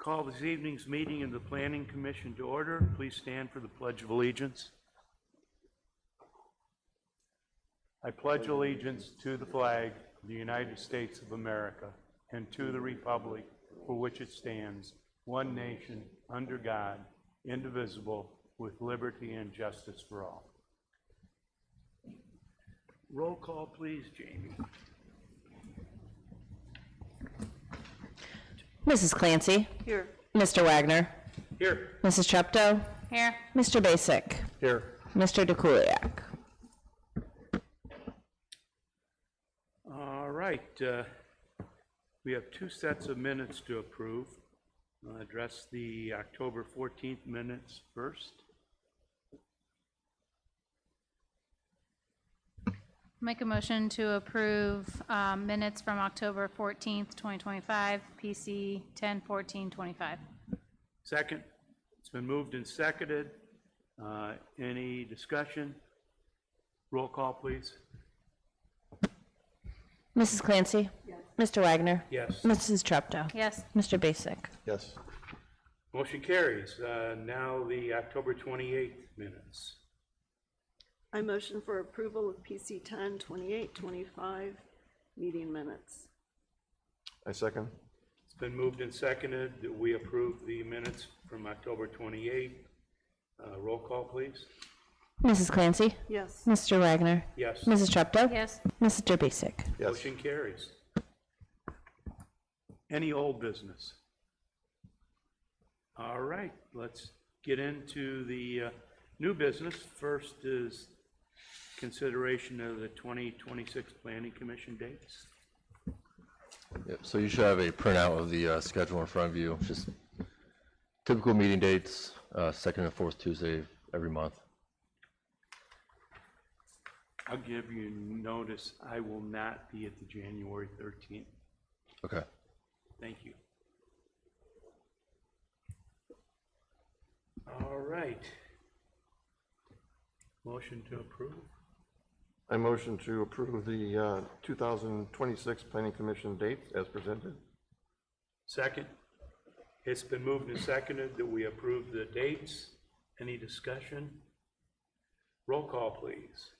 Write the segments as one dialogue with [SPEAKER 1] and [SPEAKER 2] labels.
[SPEAKER 1] Call this evening's meeting of the Planning Commission to order. Please stand for the Pledge of Allegiance. I pledge allegiance to the flag of the United States of America and to the republic for which it stands, one nation, under God, indivisible, with liberty and justice for all. Roll call, please, Jamie.
[SPEAKER 2] Mrs. Clancy.
[SPEAKER 3] Here.
[SPEAKER 2] Mr. Wagner.
[SPEAKER 1] Here.
[SPEAKER 2] Mrs. Treptow.
[SPEAKER 3] Here.
[SPEAKER 2] Mr. Basic.
[SPEAKER 1] Here.
[SPEAKER 2] Mr. DeKuliak.
[SPEAKER 1] All right, uh, we have two sets of minutes to approve. I'll Address the October 14th minutes first.
[SPEAKER 3] Make a motion to approve um, minutes from October 14th, 2025, PC 101425.
[SPEAKER 1] Second, it's been moved and seconded. Uh, Any discussion? Roll call, please.
[SPEAKER 2] Mrs. Clancy. Mr. Wagner.
[SPEAKER 1] Yes.
[SPEAKER 2] Mrs. Treptow.
[SPEAKER 3] Yes,
[SPEAKER 2] Mr. Basic.
[SPEAKER 4] Yes.
[SPEAKER 1] Motion carries. Uh, Now the October 28th minutes.
[SPEAKER 5] I motion for approval of PC ten twenty-eight twenty-five meeting minutes.
[SPEAKER 4] I second.
[SPEAKER 1] It's been moved and seconded that we approve the minutes from October 28th. Uh, Roll call, please.
[SPEAKER 2] Mrs. Clancy.
[SPEAKER 5] Yes,
[SPEAKER 2] Mr. Wagner.
[SPEAKER 1] Yes.
[SPEAKER 2] Mrs. Treptow.
[SPEAKER 3] yes,
[SPEAKER 2] Mr. Basic.
[SPEAKER 4] Yes.
[SPEAKER 1] Motion carries. Any old business? All right, let's get into the uh, new business. First is consideration of the 2026 Planning Commission dates.
[SPEAKER 6] Yep, so you should have a printout of the uh, schedule in front of you, just typical meeting dates, uh, second and fourth Tuesday of every month.
[SPEAKER 1] I'll give you notice, I will not be at the January 13th.
[SPEAKER 6] Okay.
[SPEAKER 1] Thank you. All right. Motion to approve?
[SPEAKER 4] I motion to approve the uh, 2026 Planning Commission dates as presented.
[SPEAKER 1] Second. It's been moved and seconded that we approve the dates. Any discussion? Roll call, please.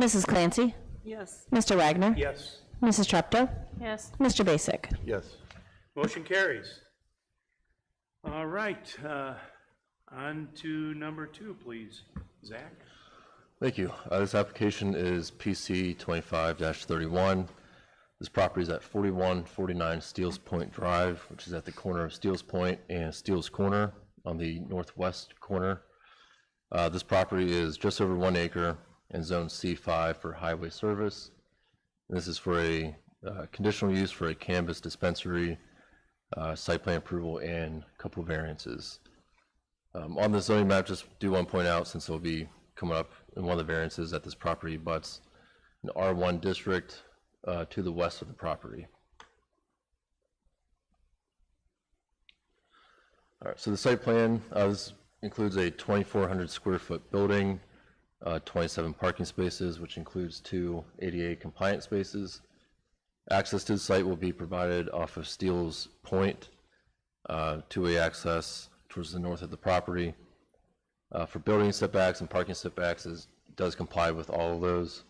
[SPEAKER 2] Mrs. Clancy.
[SPEAKER 5] yes,
[SPEAKER 2] Mr. Wagner.
[SPEAKER 1] Yes.
[SPEAKER 2] Mrs. Treptow.
[SPEAKER 3] yes.
[SPEAKER 2] Mr. Basic.
[SPEAKER 4] Yes.
[SPEAKER 1] Motion carries. All right, uh, on to number two, please. Zach?
[SPEAKER 6] Thank you. Uh, This application is PC 25-31. This property is at 4149 Steels Point Drive, which is at the corner of Steels Point and Steels Corner on the northwest corner. Uh, This property is just over one acre and Zone C5 for highway service. This is for a uh, conditional use for a cannabis dispensary, uh, site plan approval, and a couple variances. Um, On the zoning map, just do want to point out, since it'll be coming up in one of the variances that this property butts an R1 district uh, to the west of the property. All right, so the site plan, uh, this includes a 2,400 square foot building, uh, 27 parking spaces, which includes two ADA compliant spaces. Access to the site will be provided off of Steeles Point, uh, two-way access towards the north of the property. Uh, For building setbacks and parking setbacks is, does comply with all of those.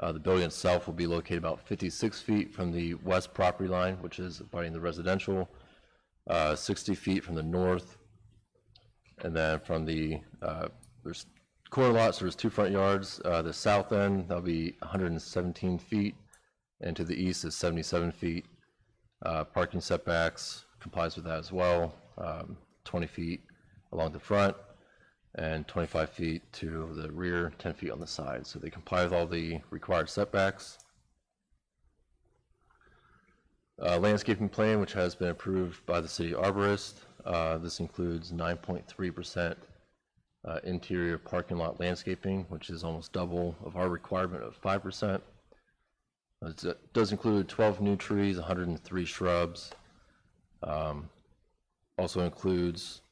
[SPEAKER 6] Uh, The building itself will be located about 56 feet from the west property line, which is abutting the residential, uh, 60 feet from the north, and then from the, uh, there's corner lots, there's two front yards. Uh, The south end, that'll be 117 feet, and to the east is 77 feet. Uh, Parking setbacks complies with that as well, um, 20 feet along the front and 25 feet to the rear, 10 feet on the side. So they comply with all the required setbacks. Uh, Landscaping plan, which has been approved by the city arborist. Uh, This includes 9.3% uh, interior parking lot landscaping, which is almost double of our requirement of 5%. It's- It does include 12 new trees, 103 shrubs. Um, Also includes